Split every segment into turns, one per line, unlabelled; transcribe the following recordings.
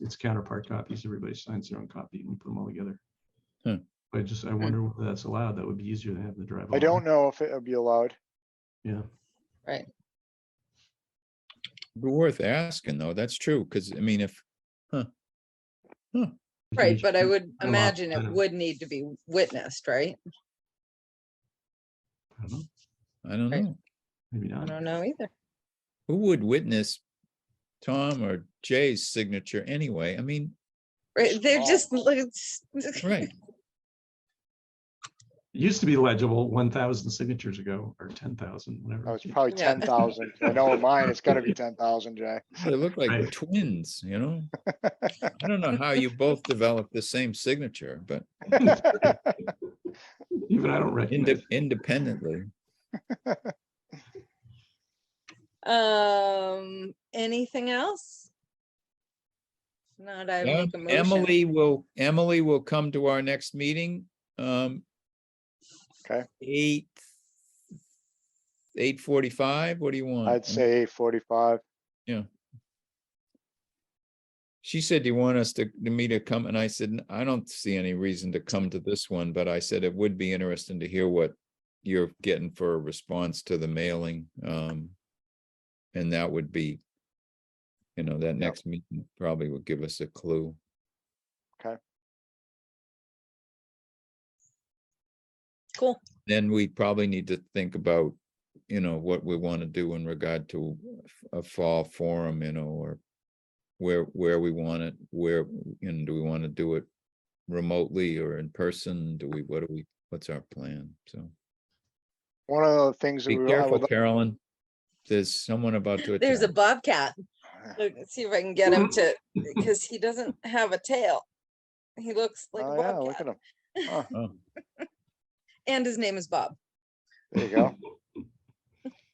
it's counterpart copies. Everybody signs their own copy and we put them all together.
Hmm.
I just, I wonder whether that's allowed. That would be easier than having to drive.
I
all
don't
night.
know if it would be allowed.
Yeah.
Be worth asking though, that's true, because I mean, if,
If you
Right,
just
but I
keep-
would
a lot
imagine it
better.
would need to be witnessed, right?
I don't know,
I don't
Right.
know,
Maybe
I
not.
don't know either.
who would witness Tom or Jay's signature anyway? I mean,
Right, they're
Small.
just, like, it's-
right,
It used to be legible one thousand signatures ago or ten thousand, whatever.
No, it's probably
Yeah.
ten thousand. I know in mine, it's gotta be ten thousand, Jay.
they look like
Right.
twins, you know? I don't know how you both developed the same signature, but
Even I don't recognize.
inde- independently.
Um, anything else? Not I
Yeah,
make a motion.
Emily will, Emily will come to our next meeting. um,
Okay.
Eight. Eight forty-five, what do you want?
I'd
I mean,
say forty-five.
She said, do you want us to, to me to come? And I said, "N- I don't see any reason to come to this one, but I said it would be interesting to hear what you're getting for a response to the mailing. Um, and that would be, you know, that next meeting probably would give us a clue.
Cool.
Then we probably need to think about, you know, what we want to do in regard to a fall forum, you know, or where, where we want it, where, and do we want to do it remotely or in person? Do we, what do we, what's our plan? So
One of the things
be
that we, I
careful,
would,
Carolyn. There's someone about to.
There's a
attack.
bobcat. Look, let's see if I can get him to, because he doesn't have a tail. He looks like a
oh yeah, look
bobcat
at him. Huh,
Oh,
and his name is Bob.
There you go.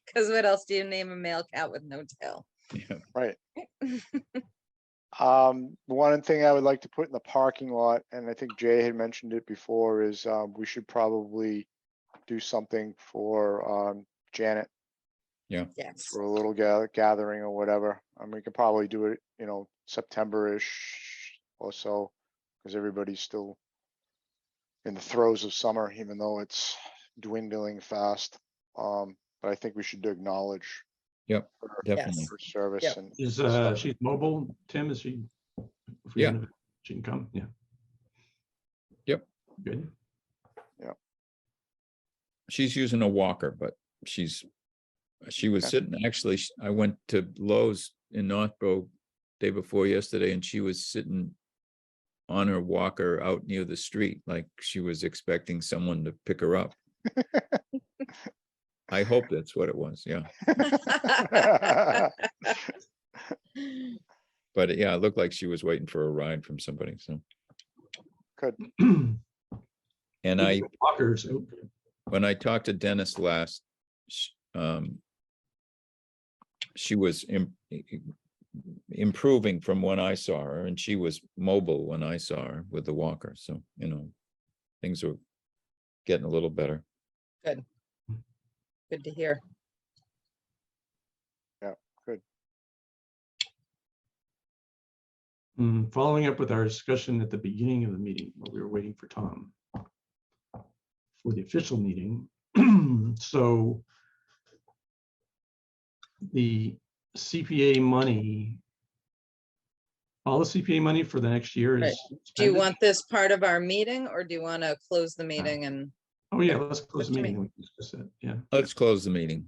Because what else do you name a male cat with no tail?
yeah.
Right. Um, the one thing I would like to put in the parking lot, and I think Jay had mentioned it before, is, um, we should probably do something for, um, Janet
Yes.
for a little ga- gathering or whatever. I mean, we could probably do it, you know, September-ish or so, because everybody's still in the throes of summer, even though it's dwindling fast. Um, but I think we should acknowledge
Yep,
her-
Definitely.
her service
Yep.
and
Is, uh, she's mobile? Tim, is she? if we
Yeah.
have- She can come, yeah.
Yep.
Good.
She's using a walker, but she's, she was
Okay.
sitting, actually, sh- I went to Lowe's in Northborough day before yesterday and she was sitting on her walker out near the street, like she was expecting someone to pick her up. I hope that's what it was, yeah. But yeah, it looked like she was waiting for a ride from somebody, so. And I
Walkers, okay.
when I talked to Dennis last, sh- um, she was im- i- i- improving from when I saw her and she was mobile when I saw her with the walker. So, you know, things are getting a little better.
Good to hear.
Mm, Following up with our discussion at the beginning of the meeting, while we were waiting for Tom for the official meeting, so the CPA money, all the CPA money for the next year
Right.
is.
Do you
expended?
want this part of our meeting or do you want to close the meeting and,
Oh, yeah, let's close the
Just me.
meeting. We can discuss it, Yeah.
Let's close the meeting.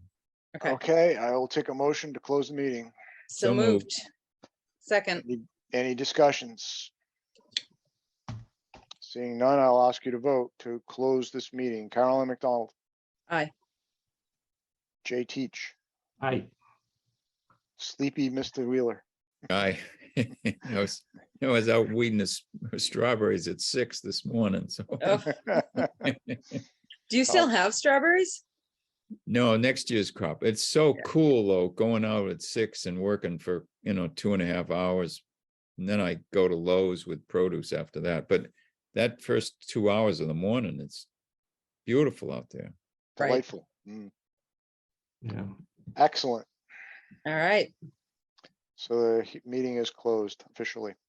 okay,
Okay, I will take a motion to close the meeting.
so
So moved.
moved. Second,
Any discussions? Seeing none, I'll ask you to vote to close this meeting. Carolyn McDonald,
aye.
Jay Teach,
Aye.
sleepy Mr. Wheeler.
I, I was, I was out weeding the s- strawberries at six this morning, so.
Oh, Do you still have strawberries?
No, next year's crop. It's so
Yeah.
cool though, going out at six and working for, you know, two and a half hours. And then I go to Lowe's with produce after that, but that first two hours of the morning, it's beautiful out there.
Right.
Delightful. Mm,
Yeah.
Excellent.
All right.
So the he- meeting is closed officially.